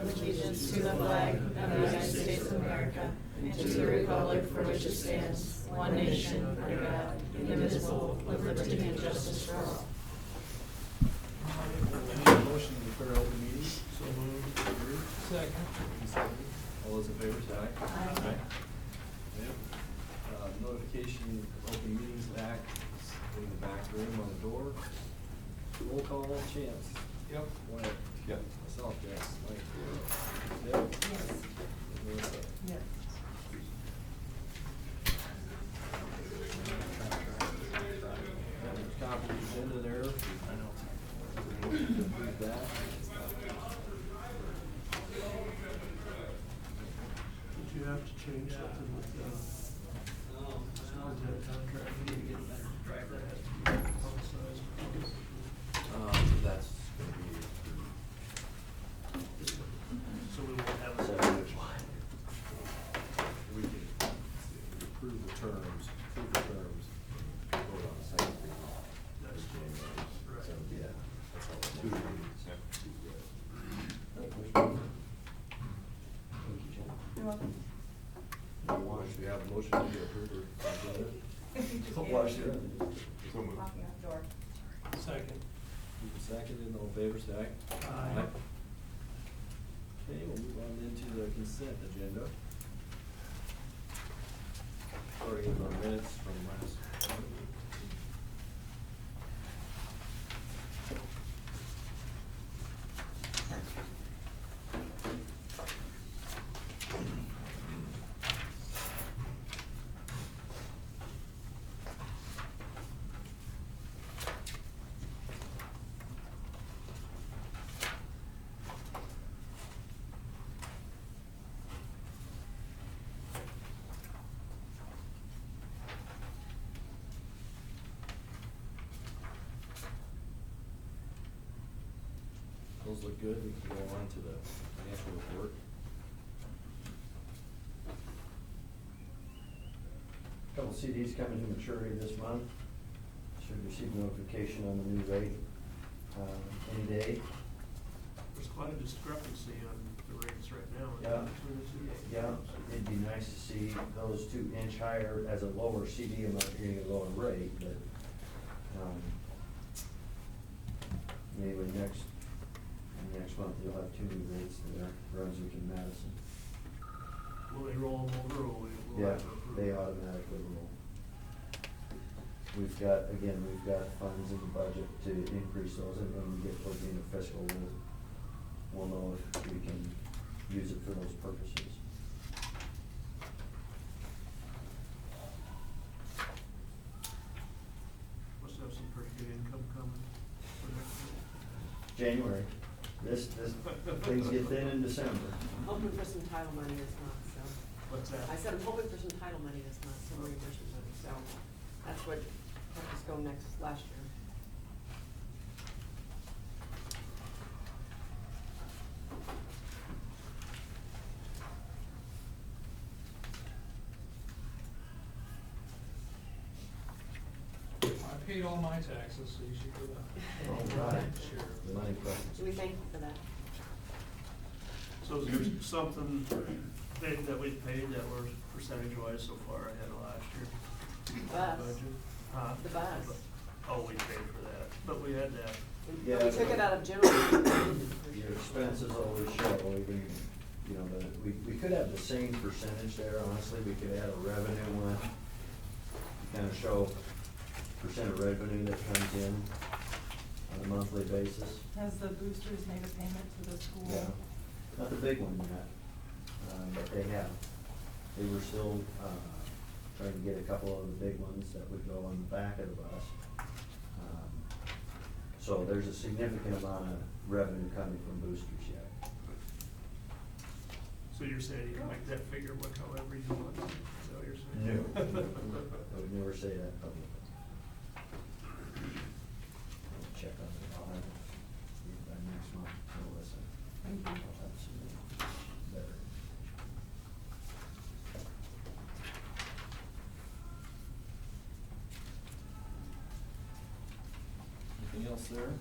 allegiance to the flag of the United States of America and to the republic for which it stands, one nation, under God, indivisible, with liberty and justice for all. Motion to declare open meeting. So moved. Second. All those in favor, say aye. Aye. Yep. Uh, Notification, of Open Meetings Act is in the back room on the door. Roll call, Chance. Yep. Wyatt. Yep. Myself, yes. Mike. Deb. Melissa. Have a Copy of the agenda there. I know. Approve that. Did you have to change something with the, with that contract? You need to get that, that has to be publicized. Um, that's gonna be. So we won't have a So separate We can approve the terms, approve the terms, vote on the second reading. That's in January. right. So, yeah, that's all. Two readings, yeah. Thank you, Jen. Wash, we have a motion to approve or agenda. Don't wash your hands. So moved. Second. Moving Seconded, all in favor, say aye. Aye. Okay, we'll move on then to the consent agenda. Starting with our minutes from last. Those look good, we can go on to the financial report. Couple CDs coming to maturity this month. Should receive notification on the new rate uh, any day. There's quite a discrepancy on the rates right now. isn't Yeah. there? Yeah, it'd be nice to see those two inch higher as a lower CD. I'm not getting a lower rate, but, um, anyway, next, next month you'll have two new rates in there, Brunswick and Madison. Will they roll them over or will we? we'll Yeah, have to approve they it? automatically roll. We've got, again, we've got funds in the budget to increase those, and when we get towards the end of fiscal, we'll, we'll know if we can use it for those purposes. Must have some pretty good income coming for next year. January, this, this, things get thin in December. Hoping for some title money this month, so. What's that? I said I'm hoping for some title money this month, some reimbursement money, so that's what helped us go next, last year. I paid all my taxes, so you should go All down. right. Sure. Money So we questions. thank you for that. So is there something that that we paid that were percentage wise so far ahead of last year? Bus. Budget? Huh? The bus. Oh, we paid for that, but we had that. We- Yeah, We took but- it out of general. Your expenses always show, even, you know, but we, we could have the same percentage there, honestly, we could add a revenue one. Kind of show percent of revenue that comes in on a monthly basis. Has the boosters made a payment to the school? Yeah, not the big one yet, uh, but they have. They were still, uh, trying to get a couple of the big ones that would go on the back of the bus. Um, So there's a significant amount of revenue coming from boosters yet. So you're saying you can make that figure look however you want, is that what you're No, saying? I would never say that publicly. I'll Check on it, I'll have it by next month, Melissa. Thank you. I'll have some better. Anything else there?